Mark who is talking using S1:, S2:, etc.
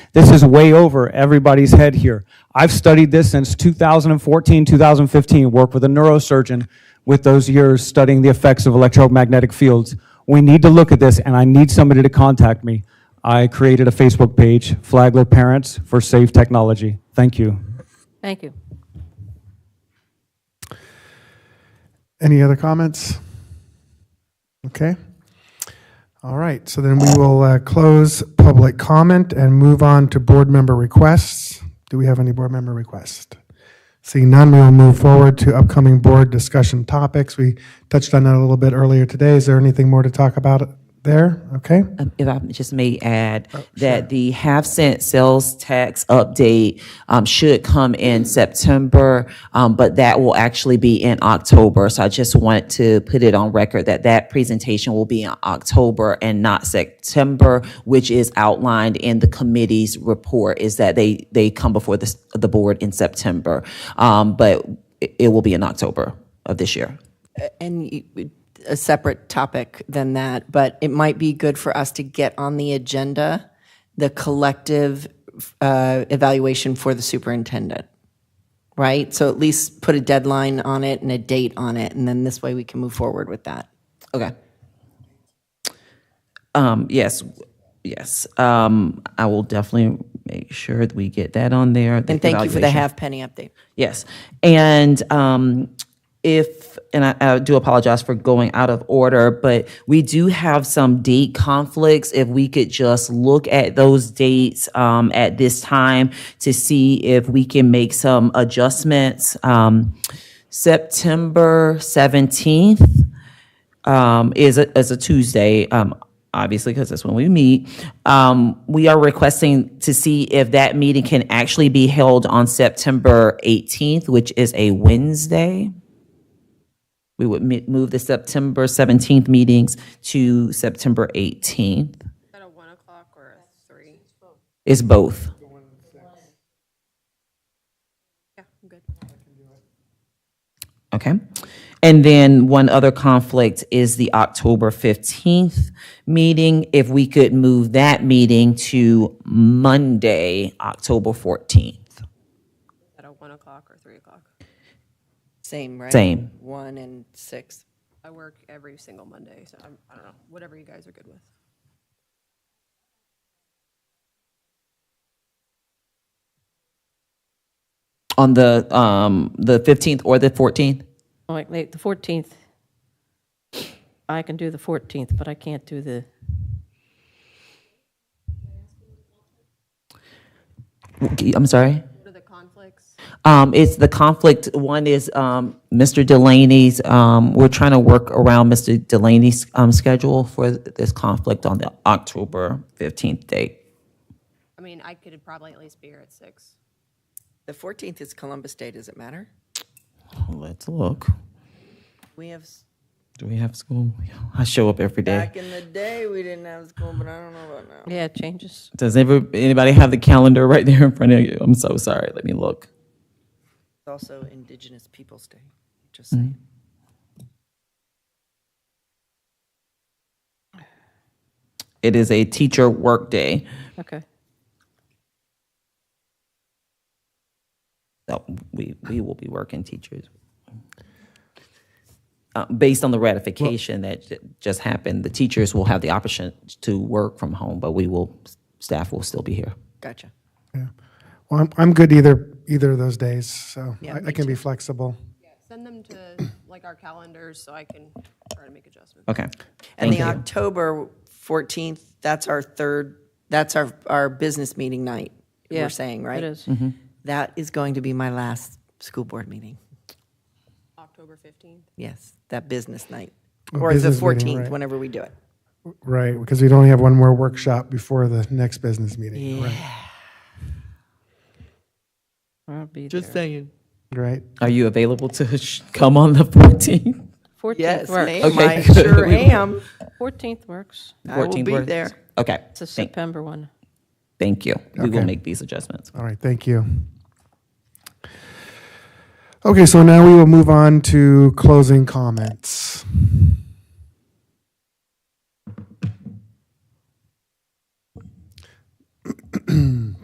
S1: This is way over everybody's head here. I've studied this since 2014, 2015, worked with a neurosurgeon with those years studying the effects of electromagnetic fields. We need to look at this, and I need somebody to contact me. I created a Facebook page, Flagler Parents for Safe Technology. Thank you.
S2: Thank you.
S3: Any other comments? Okay. All right, so then we will uh, close public comment and move on to board member requests. Do we have any board member requests? Seeing none, we will move forward to upcoming board discussion topics. We touched on that a little bit earlier today. Is there anything more to talk about there? Okay,
S4: Um, If I just may add that the half cent sales tax update um, should come in September, um, but that will actually be in October. So I just want to put it on record that that presentation will be in October and not September, which is outlined in the committee's report, is that they, they come before the, s- the board in September. Um, But it- it will be in October of this year.
S2: And you- a separate topic than that, but it might be good for us to get on the agenda the collective uh, evaluation for the superintendent, right? So at least put a deadline on it and a date on it, and then this way we can move forward with that.
S4: Okay. Um, yes, yes. Um, I will definitely make sure that we get that on there.
S2: And thank you for the
S4: evaluation.
S2: half penny update.
S4: Yes. And um, if, and I, I do apologize for going out of order, but we do have some date conflicts. If we could just look at those dates um, at this time to see if we can make some adjustments. Um, September 17th um, is a, is a Tuesday, um, obviously, because that's when we meet. Um, we are requesting to see if that meeting can actually be held on September 18th, which is a Wednesday. We would mi- move the September 17th meetings to September 18th. Is that a one o'clock or a three? It's both. Okay. And then one other conflict is the October 15th meeting. If we could move that meeting to Monday, October 14th.
S5: At a one o'clock or three o'clock.
S2: Same, right?
S4: Same.
S2: One and six.
S5: I work every single Monday, so I'm, I don't know, whatever you guys are good with.
S4: On the, um, the 15th or the 14th?
S6: Oh, wait, wait, the 14th. I can do the 14th, but I can't do the,
S4: I'm sorry?
S5: What are the conflicts?
S4: Um, it's the conflict, one is, um, Mr. Delaney's, um, we're trying to work around Mr. Delaney's, um, schedule for this conflict on the October 15th date.
S5: I mean, I could probably at least be here at six.
S2: The 14th is Columbus Day, does it matter?
S4: Let's look.
S2: We have, s-
S4: Do we have school? I show up every day.
S2: back in the day, we didn't have school, but I don't know about now.
S6: yeah, it changes.
S4: Does ever, anybody have the calendar right there in front of you? I'm so sorry. Let me look.
S2: It's also Indigenous Peoples' Day, just
S4: Mm-hmm.
S2: saying.
S4: It is a teacher workday.
S6: Okay.
S4: So we, we will be working teachers. Uh, based on the ratification that ju- just happened, the teachers will have the option to work from home, but we will, staff will still be here.
S2: Gotcha.
S3: well, I'm, I'm good either, either of those days, so I- I can be flexible.
S5: Send them to like our calendars so I can try to make adjustments.
S4: Okay.
S2: And
S4: Thank
S2: the
S4: you.
S2: October 14th, that's our third, that's our, our business meeting night,
S6: Yeah,
S2: we're saying, right?
S6: It is.
S4: Mm-hmm.
S2: That is going to be my last school board meeting.
S5: October fifteenth.
S2: Yes, that business night.
S3: Oh,
S2: Or the
S3: business meeting,
S2: 14th,
S3: right.
S2: whenever we do it.
S3: Right, because we'd only have one more workshop before the next business meeting. Right.
S6: I'll be
S7: Just
S6: there.
S7: saying.
S3: Right.
S4: Are you available to sh- come on the 14th?
S6: 14th
S2: Yes,
S6: works.
S2: ma'am, I
S4: Okay.
S2: sure am.
S6: 14th works.
S2: I will
S4: 14th
S2: be
S4: works?
S2: there.
S4: Okay.
S6: It's a
S4: Thank-
S6: September one.
S4: Thank you. We will
S3: Okay.
S4: make these adjustments.
S3: All right, thank you. Okay, so now we will move on to closing comments.